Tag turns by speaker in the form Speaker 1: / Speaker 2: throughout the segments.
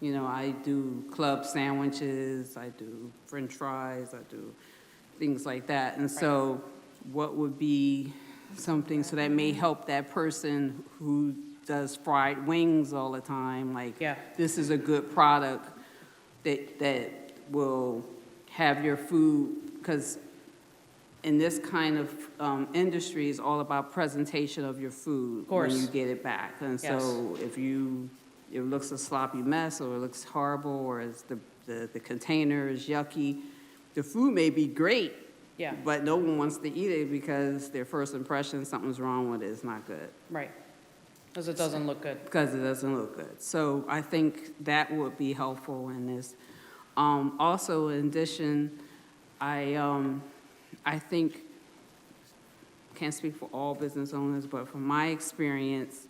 Speaker 1: You know, I do club sandwiches, I do french fries, I do things like that. And so what would be something, so that may help that person who does fried wings all the time, like,
Speaker 2: Yeah.
Speaker 1: this is a good product that, that will have your food, because in this kind of um, industry is all about presentation of your food. When
Speaker 2: Course.
Speaker 1: you get it back. And so
Speaker 2: Yes.
Speaker 1: if you, it looks a sloppy mess, or it looks horrible, or it's the, the the container is yucky, the food may be great.
Speaker 2: Yeah.
Speaker 1: But no one wants to eat it because their first impression, something's wrong with it, it's not good
Speaker 2: Right. Because it doesn't look good.
Speaker 1: because it doesn't look good. So I think that would be helpful in this. Um, also, in addition, I, um, I think, can't speak for all business owners, but from my experience,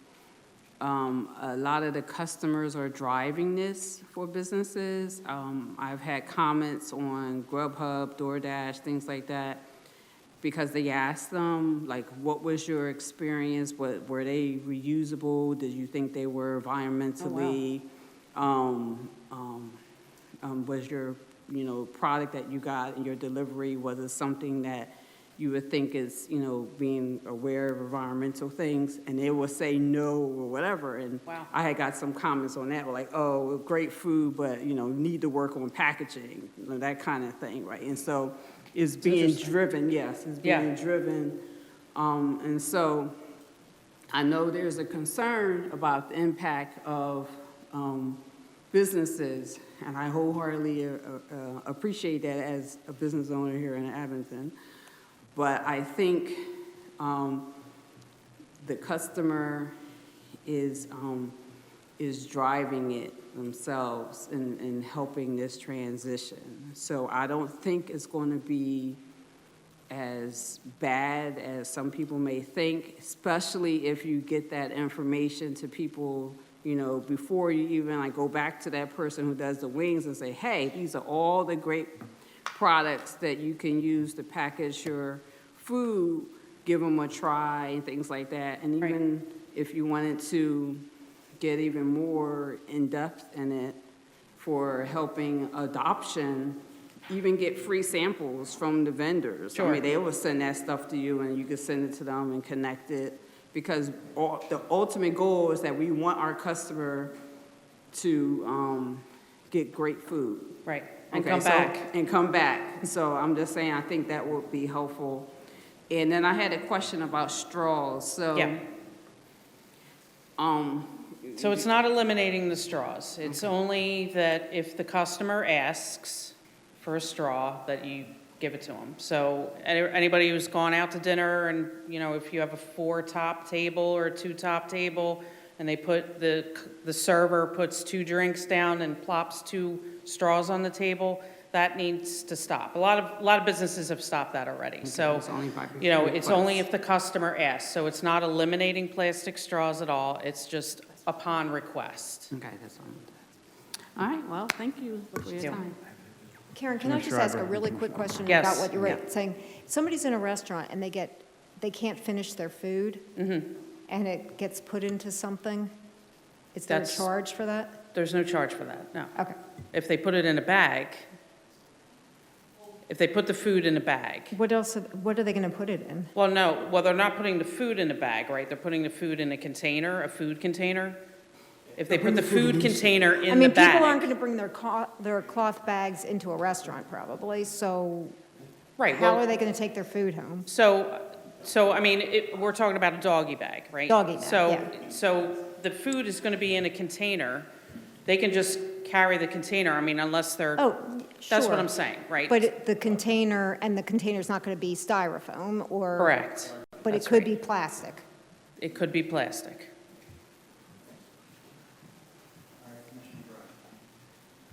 Speaker 1: um, a lot of the customers are driving this for businesses. Um, I've had comments on Grubhub, DoorDash, things like that, because they asked them, like, what was your experience? What, were they reusable? Did you think they were environmentally? Um, um, um, was your, you know, product that you got in your delivery, was it something that you would think is, you know, being aware of environmental things? And they will say no or whatever, and
Speaker 2: Wow.
Speaker 1: I had got some comments on that, like, oh, well, great food, but, you know, need to work on packaging, you know, that kind of thing, right? And so it's being driven, yes, it's
Speaker 2: Yeah.
Speaker 1: being driven. Um, and so I know there's a concern about the impact of um, businesses, and I wholeheartedly uh, uh, appreciate that as a business owner here in Abington. But I think um, the customer is, um, is driving it themselves and, and helping this transition. So I don't think it's going to be as bad as some people may think, especially if you get that information to people, you know, before you even like go back to that person who does the wings and say, hey, these are all the great products that you can use to package your food, give them a try and things like that. And
Speaker 2: Right.
Speaker 1: even if you wanted to get even more in-depth in it for helping adoption, even get free samples from the vendors. I
Speaker 2: Sure.
Speaker 1: mean, they will send that stuff to you and you can send it to them and connect it. Because all, the ultimate goal is that we want our customer to um, get great food.
Speaker 2: Right. And
Speaker 1: Okay,
Speaker 2: come
Speaker 1: so-
Speaker 2: back.
Speaker 1: And come back. So I'm just saying, I think that would be helpful. And then I had a question about straws, so.
Speaker 2: Yeah.
Speaker 1: Um,
Speaker 2: So it's not eliminating the straws. It's only that if the customer asks for a straw, that you give it to them. So any- anybody who's gone out to dinner and, you know, if you have a four-top table or a two-top table, and they put, the, c- the server puts two drinks down and plops two straws on the table, that needs to stop. A lot of, a lot of businesses have stopped that already. So,
Speaker 1: it's only by
Speaker 2: you know, it's only
Speaker 1: request.
Speaker 2: if the customer asks, so it's not eliminating plastic straws at all, it's just upon request.
Speaker 1: okay, that's all. I'm doing. All right, well, thank you for your
Speaker 2: Yeah.
Speaker 1: time.
Speaker 3: Karen, can I just ask a really quick question about
Speaker 2: Yes.
Speaker 3: what you were saying? Somebody's in a restaurant and they get, they can't finish their food,
Speaker 2: Mm-hmm.
Speaker 3: and it gets put into something? Is there a
Speaker 2: That's-
Speaker 3: charge for that?
Speaker 2: There's no charge for that, no.
Speaker 3: Okay,
Speaker 2: If they put it in a bag, if they put the food in a bag,
Speaker 3: what else, what are they going to put it in?
Speaker 2: well, no, well, they're not putting the food in a bag, right? They're putting the food in a container, a food container. If they put the food container
Speaker 3: I
Speaker 2: in the
Speaker 3: mean, people
Speaker 2: bag.
Speaker 3: aren't going to bring their cloth, their cloth bags into a restaurant probably, so
Speaker 2: Right,
Speaker 3: how
Speaker 2: well,
Speaker 3: are they going to take their food home?
Speaker 2: So, so, I mean, it, we're talking about a doggy bag, right?
Speaker 3: Doggy bag,
Speaker 2: So,
Speaker 3: yeah.
Speaker 2: so the food is gonna be in a container. They can just carry the container, I mean, unless they're,
Speaker 3: Oh,
Speaker 2: that's what
Speaker 3: sure.
Speaker 2: I'm saying, right?
Speaker 3: But it- the container, and the container's not going to be styrofoam or...
Speaker 2: Correct.
Speaker 3: But it
Speaker 2: That's
Speaker 3: could
Speaker 2: right.
Speaker 3: be plastic.
Speaker 2: It could be plastic.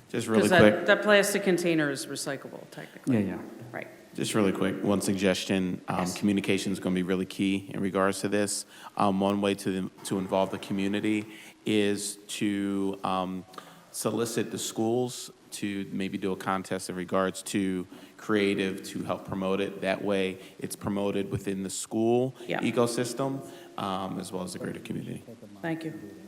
Speaker 4: Just really
Speaker 2: Because
Speaker 4: quick,
Speaker 2: that, that plastic container is recyclable technically.
Speaker 4: Yeah, yeah.
Speaker 2: Right,
Speaker 4: just really quick, one suggestion. Um,
Speaker 2: Yes.
Speaker 4: communication is going to be really key in regards to this. Um, one way to, to involve the community is to um, solicit the schools to maybe do a contest in regards to creative to help promote it. That way, it's promoted within the school
Speaker 2: Yeah.
Speaker 4: ecosystem um, as well as the greater community.
Speaker 2: thank you.